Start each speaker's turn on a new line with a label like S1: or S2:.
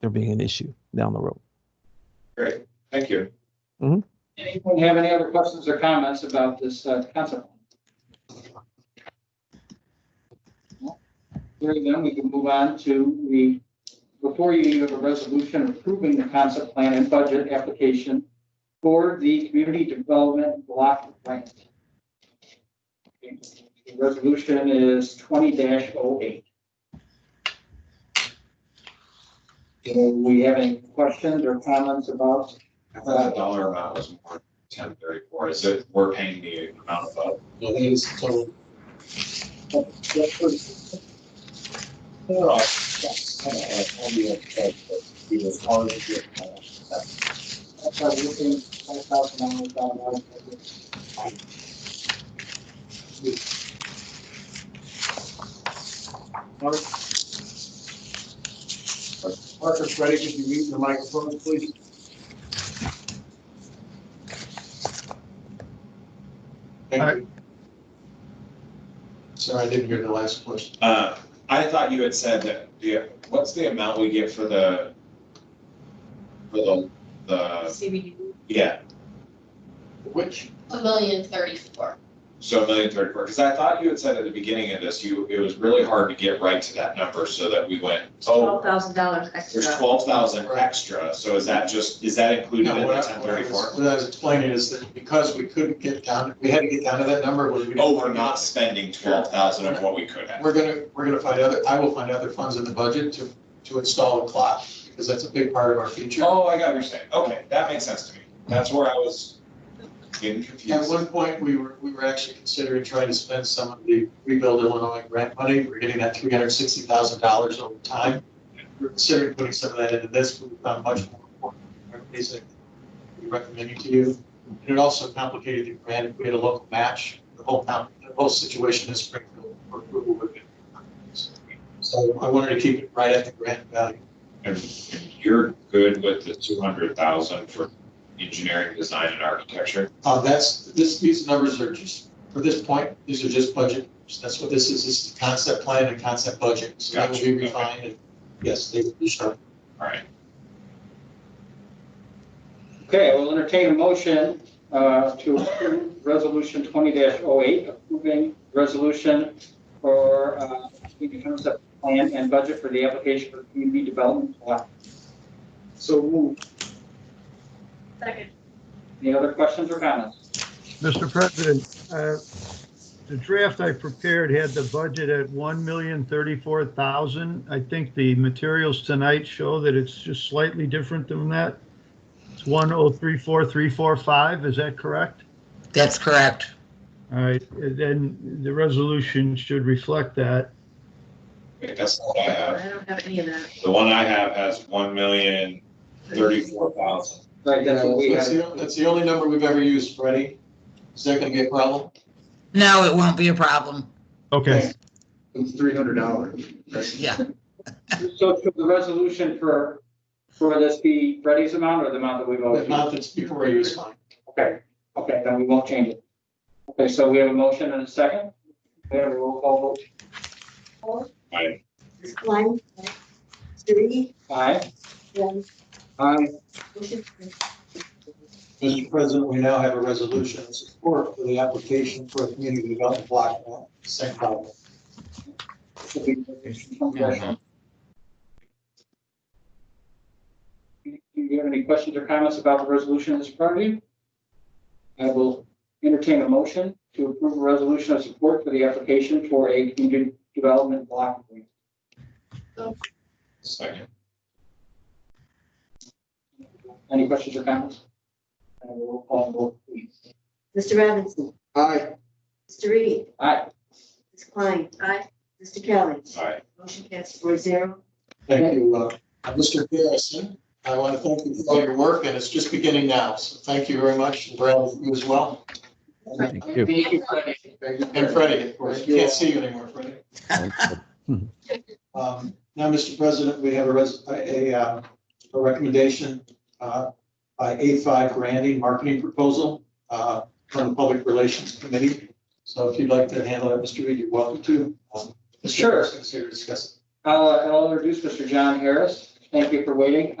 S1: there being an issue down the road.
S2: Great, thank you.
S1: Mhm.
S2: Anyone have any other questions or comments about this uh, concept? Very then, we can move on to the, before you, you have a resolution approving the concept plan and budget application for the community development block grant. The resolution is twenty oh 8 Do we have any questions or comments about
S3: I thought the dollar amount was more ten thirty-four, is it, we're paying the amount above?
S4: I think it's total. Oh,
S2: That's why we're looking at five thousand dollars down the line.
S4: Parker, Freddie, could you mute the microphone, please? Thank you. Sorry, I didn't hear the last question.
S3: Uh, I thought you had said that, the, what's the amount we get for the, for the, the,
S5: CBD,
S3: yeah,
S4: Which,
S5: a million thirty-four.
S3: so a million thirty-four, because I thought you had said at the beginning of this, you, it was really hard to get right to that number, so that we went, oh,
S5: Twelve thousand dollars
S3: there's
S5: extra.
S3: twelve thousand extra, so is that just, is that included
S4: no,
S3: in
S4: what
S3: the
S4: I,
S3: ten
S4: what I was,
S3: thirty-four?
S4: what I was explaining is that because we couldn't get down, we had to get down to that number. we didn't-
S3: Oh, we're not spending twelve thousand of what we could have.
S4: We're gonna, we're gonna find other, I will find other funds in the budget to, to install a clock, because that's a big part of our future.
S3: Oh, I got what you're saying. Okay, that makes sense to me. That's where I was getting
S4: At
S3: confused.
S4: one point, we were, we were actually considering trying to spend some of the rebuild Illinois grant money. We're getting that three hundred sixty thousand dollars over time. We're considering putting some of that into this, but we found much more important priorities that we recommended to you. And it also complicated the grant. If we had a local match, the whole town, the whole situation in Springfield for approval would have been. So I wanted to keep it right at the grant value.
S3: And You're good with the two hundred thousand for engineering, design and architecture?
S4: Uh, that's, this, these numbers are just, for this point, these are just budget, that's what this is, this is the concept plan and concept budget. So that will be
S3: Gotcha.
S4: refined, and yes, they will be sharp.
S3: All right.
S2: Okay, we'll entertain a motion uh, to approve Resolution twenty 8 approving resolution for uh, the concept plan and budget for the application for community development block. So move.
S5: Second.
S2: Any other questions or comments?
S6: Mr. President, uh, the draft I prepared had the budget at one million thirty-four thousand. I think the materials tonight show that it's just slightly different than that. It's one oh three four three four five, is that correct?
S7: That's correct.
S6: All right, then the resolution should reflect that.
S3: Wait, That's not what I have.
S5: I don't have any of that.
S3: The one I have has one million thirty-four thousand.
S2: Right, that's what we
S4: That's
S2: have.
S4: the, that's the only number we've ever used, Freddie. Is that gonna be a problem?
S7: No, it won't be a problem.
S6: Okay,
S4: It's three hundred dollars.
S7: Yeah,
S2: So should the resolution for, for this be Freddie's amount or the amount that we've
S4: The
S2: always?
S4: amount that's before you is fine.
S2: Okay, okay, then we won't change it. Okay, so we have a motion and a second. We have a roll call vote.
S3: I,
S8: Ms. Klein. Surley.
S2: Aye.
S8: Glenn.
S2: Aye.
S8: Motion carries.
S4: Mr. President, we now have a resolution in support for the application for a community development block grant, same problem.
S2: Do you have any questions or comments about the resolution that's in front of you? I will entertain a motion to approve a resolution of support for the application for a community development block grant.
S3: second.
S2: Any questions or comments? I will call vote, please.
S8: Mr. Robinson.
S4: Aye.
S8: Mr. Reed.
S2: Aye.
S8: Ms. Klein.
S5: Aye.
S8: Mr. Kelly.
S3: Aye.
S8: Motion passes four zero.
S4: Thank you, uh, Mr. Garrison. I want to thank you for all your work, and it's just beginning now, so thank you very much, and Brad, you as well.
S1: Thank you.
S2: Thank you, Freddie.
S4: And Freddie, of course, you can't see you anymore, Freddie. Um, Now, Mr. President, we have a res, a, uh, a recommendation uh, by A5 Grandy Marketing Proposal uh, from the Public Relations Committee. So if you'd like to handle that, Mr. Reed, you're welcome to. Um, Mr.
S2: Sure.
S4: Garrison's here to discuss it.
S2: I'll, uh, I'll introduce Mr. John Harris, and Thank you for waiting.